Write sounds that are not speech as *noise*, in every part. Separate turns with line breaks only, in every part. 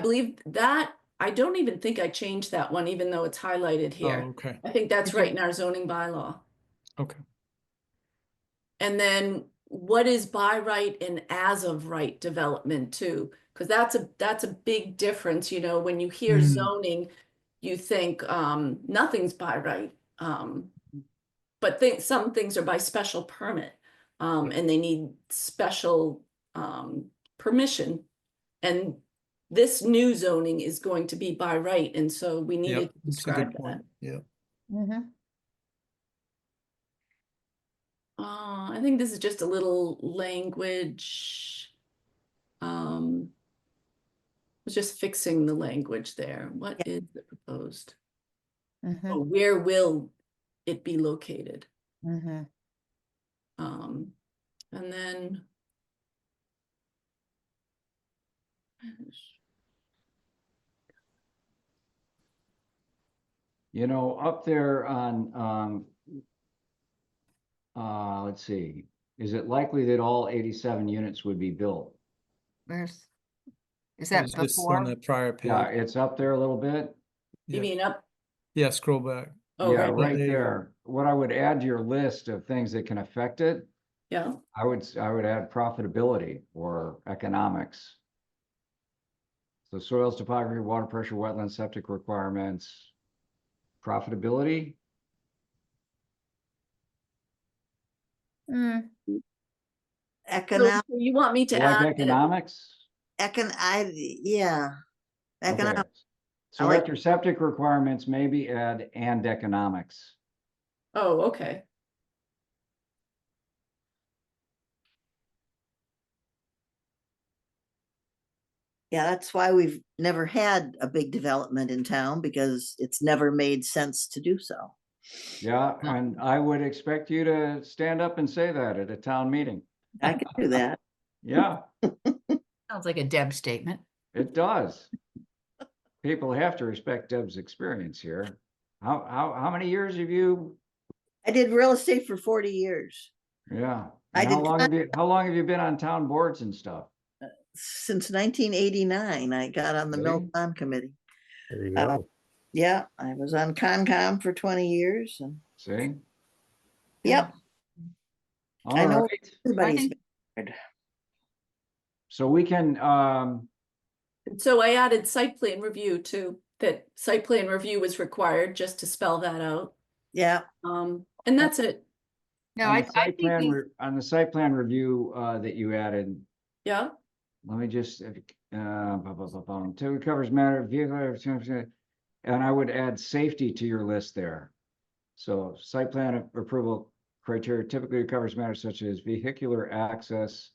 I believe that, I don't even think I changed that one, even though it's highlighted
Oh,
here.
okay.
I think that's right in our zoning bylaw.
Okay.
And then what is by right and as of right development too? Because that's a, that's a big difference, you know, when you hear
Mm.
zoning, you think, um, nothing's by right. Um, but think, some things are by special permit, um, and they need special, um, permission. And this new zoning is going to be by right, and so we
Yeah,
needed to
that's a good
describe that.
point. Yeah.
Mhm.
Uh, I think this is just a little language. Um. was Just fixing the language there. What is the proposed?
Mhm.
Oh, Where will it be located?
Mhm.
Um, and then.
You know, up there on, um, uh, let's see, is it likely that all eighty-seven units would be built?
Where's? Is
I
that
was just on
before?
the prior
Yeah,
page.
it's up there a little bit.
You
Yeah.
mean up?
Yeah, scroll back.
Oh,
Yeah,
right,
There
right
you go.
there. What I would add to your list of things that can affect it,
yeah,
I would, s- I would add profitability or economics. So soils, topography, water pressure, wetland, septic requirements, profitability,
Mm,
So-
Economic,
so you want me to
You like
add? that-
economics?
econ, I, yeah. Economic,
Okay. So
like-
after septic requirements, maybe add and economics.
Oh, okay,
yeah, that's why we've never had a big development in town because it's never made sense to do so.
Yeah, and I would expect you to stand up and say that at a town meeting.
I can
*laughs*
do that.
Yeah,
sounds like a Deb statement.
it does. People have to respect Deb's experience here. How, how, how many years have you?
I did real estate for forty years,
Yeah.
I
and How
did
long have you, how long have you been on town boards and stuff?
since nineteen eighty-nine, I got on the Mill
Really?
Pond Committee.
There you
Uh,
go.
Yeah, I was on Concom for twenty years and,
See?
yep, I
All
know.
right,
everybody's,
think-
so we can, um,
And so I added site plan review too, that site plan review was required, just to spell that out.
yeah,
Um, and that's it,
No,
on
I,
the
I
site
think
plan
we,
re- On the site plan review, uh, that you added,
yeah?
Let me just, uh, blah, blah, blah, blah, until it covers matter of vehicle, or something, and I would add safety to your list there. So site plan a- approval criteria typically covers matters such as vehicular access,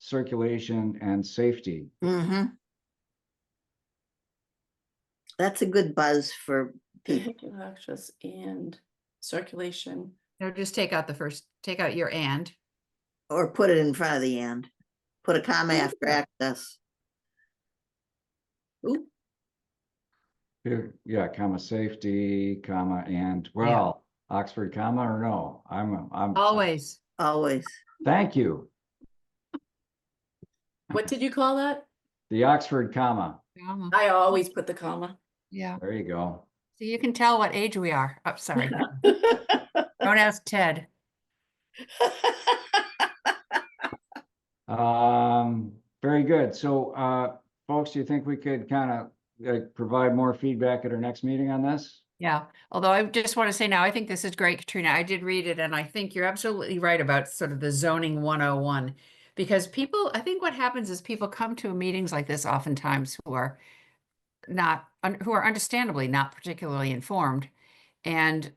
circulation, and safety.
mm-hmm. That's a good buzz for
Mm-hmm.
people.
Vehicular access and circulation.
no, just take out the first, take out your and.
Or put it in front of the end. Put a comma after access.
Ooh,
Here, Yeah, comma, safety, comma, and, well, Oxford comma or no, I'm, I'm.
Always.
Always.
Thank you,
what did you call that?
the Oxford comma,
Yeah.
I always put the comma.
Yeah.
there you go.
So you can tell what age we are. I'm *laughs* sorry. Don't ask Ted.
Um, very good. So, uh, folks, do you think we could kind of like provide more feedback at our next meeting on this?
Yeah. Although I just want to say now, I think this is great, Katrina. I did read it and I think you're absolutely right about sort of the zoning 101. Because people, I think what happens is people come to meetings like this oftentimes who are not, un- who are understandably not particularly informed. And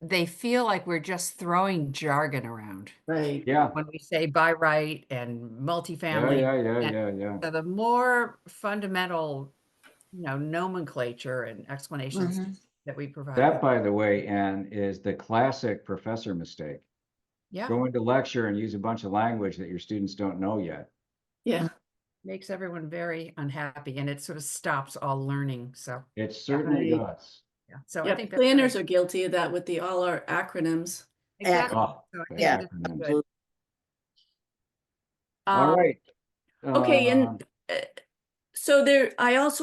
they feel like we're just throwing jargon around
Right.
Yeah.
when we say by right and
Yeah,
multifamily.
yeah, yeah,
and-
yeah, yeah.
So the more fundamental, you know, nomenclature and explanations
Mhm.
that we provide.
Mm-hmm. That, by the way, Ann, is the classic professor mistake.
Yeah,
Go into lecture and use a bunch of language that your students don't know yet.
Yeah,
makes everyone very unhappy and it sort of stops all learning. So,
It certainly
Right.
does.
yeah, so I
yeah,
think. that's great.
planners are guilty of that with the, all our acronyms.
Exactly.
Oh,
So I think
yeah.
this is good.
Absolutely.
All
Um,
right.
Okay,
Uh,
and uh, So there, I also